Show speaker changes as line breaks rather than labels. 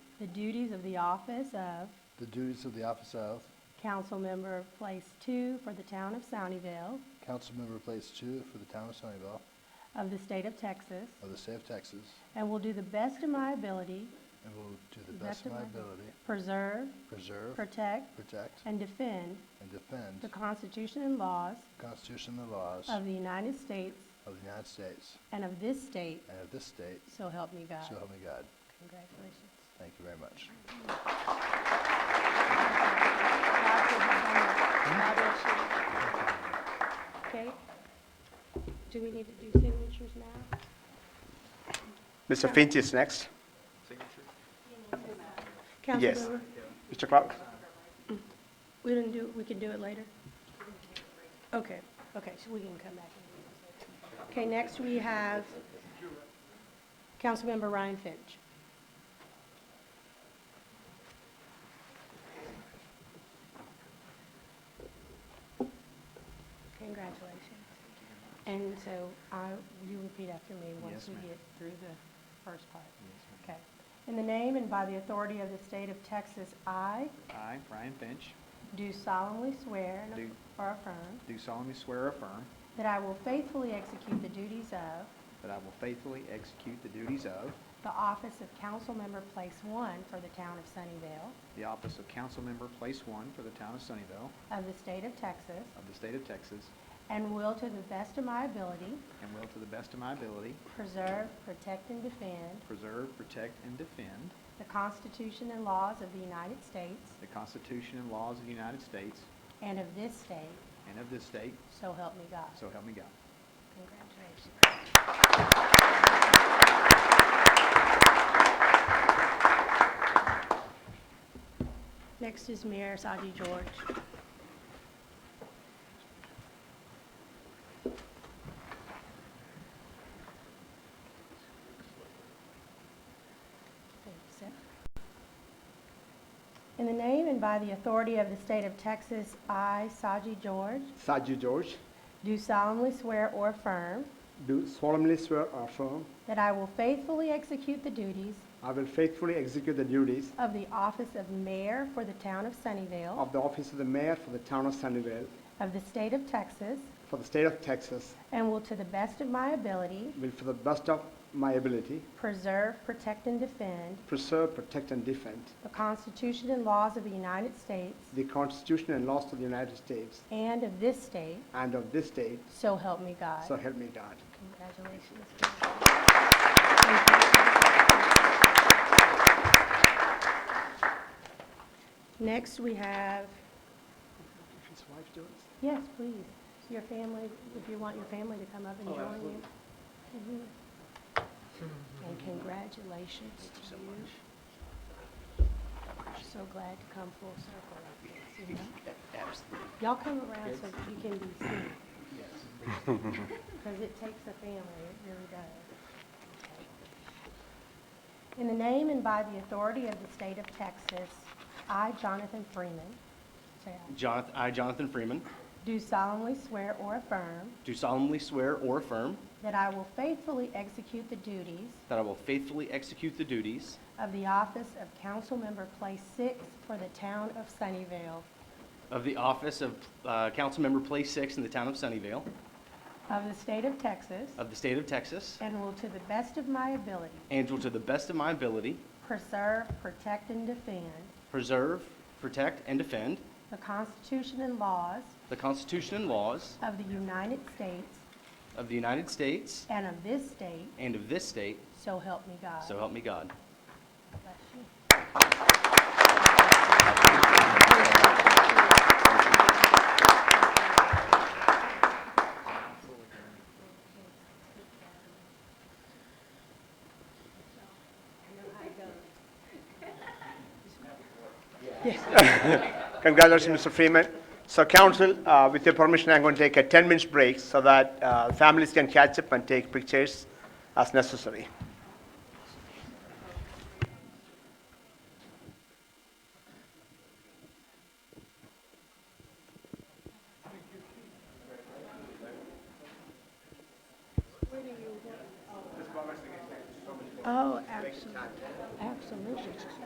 the duties of the office of
the duties of the office of
council member of Place Two for the town of Sunnyvale
council member place two for the town of Sunnyvale
of the state of Texas,
of the state of Texas,
and will do the best of my ability
and will do the best of my ability,
preserve,
preserve,
protect,
protect,
and defend
and defend
the Constitution and laws
the Constitution and the laws
of the United States
of the United States
and of this state,
and of this state,
so help me God.
so help me God.
Congratulations.
Thank you very much.
Okay, do we need to do signatures now?
Mr. Finch is next. Yes.
Councilmember,
Mr. Clark?
we didn't do, we can do it later? Okay, okay, so we can come back. Okay, next we have Councilmember Ryan Finch. Congratulations. And so I, you repeat after me once we get through the first part. Okay. In the name and by the authority of the state of Texas, I
I, Brian Finch,
do solemnly swear and
Do.
aff- or affirm
do solemnly swear or affirm
that I will faithfully execute the duties of
that I will faithfully execute the duties of
the office of council member place one for the town of Sunnyvale
the office of council member, place one, for the town of Sunnyvale
of the state of Texas
of the state of Texas,
and will to the best of my ability
and will to the best of my ability
preserve, protect, and defend
preserve, protect, and defend
the Constitution and laws of the United States
the Constitution and laws of the United States
and of this state,
and of this state,
so help me God.
so help me God.
Congratulations. Next is Mayor Saji George. In the name and by the authority of the state of Texas, I, Saji George,
Saji George,
do solemnly swear or affirm
do solemnly swear or affirm
that I will faithfully execute the duties
I will faithfully execute the duties
of the office of mayor for the town of Sunnyvale
of the office of the mayor for the town of Sunnyvale
of the state of Texas
for the state of Texas,
and will to the best of my ability
will for the best of my ability
preserve, protect, and defend
preserve, protect, and defend
the Constitution and laws of the United States
the Constitution and laws of the United States
and of this state,
and of this state,
so help me God.
so help me God.
Congratulations. Next, we have,
His wife, Joyce.
yes, please, your family, if you want your family to come up and join you. Mhm. And congratulations to you. We're So glad to come full circle like this, you know? Y'all come around so that you can be seen. Because it takes a family, it really does. In the name and by the authority of the state of Texas, I, Jonathan Freeman, say aye,
Jonathan, I, Jonathan Freeman,
do solemnly swear or affirm
do solemnly swear or affirm
that I will faithfully execute the duties
that I will faithfully execute the duties
of the office of council member place six for the town of Sunnyvale
of the office of uh, Councilmember Place Six in the town of Sunnyvale
of the state of Texas
of the state of Texas,
and will to the best of my ability
and will to the best of my ability
preserve, protect, and defend
preserve, protect, and defend
the Constitution and laws
the Constitution and laws
of the United States
of the United States
and of this state,
and of this state,
so help me God.
so help me God.
Bless you.
Congratulations, Mr. Freeman. So council, uh, with your permission, I'm going to take a 10 minutes break so that uh, families can catch up and take pictures as necessary.
Oh, absolutely, absolutely.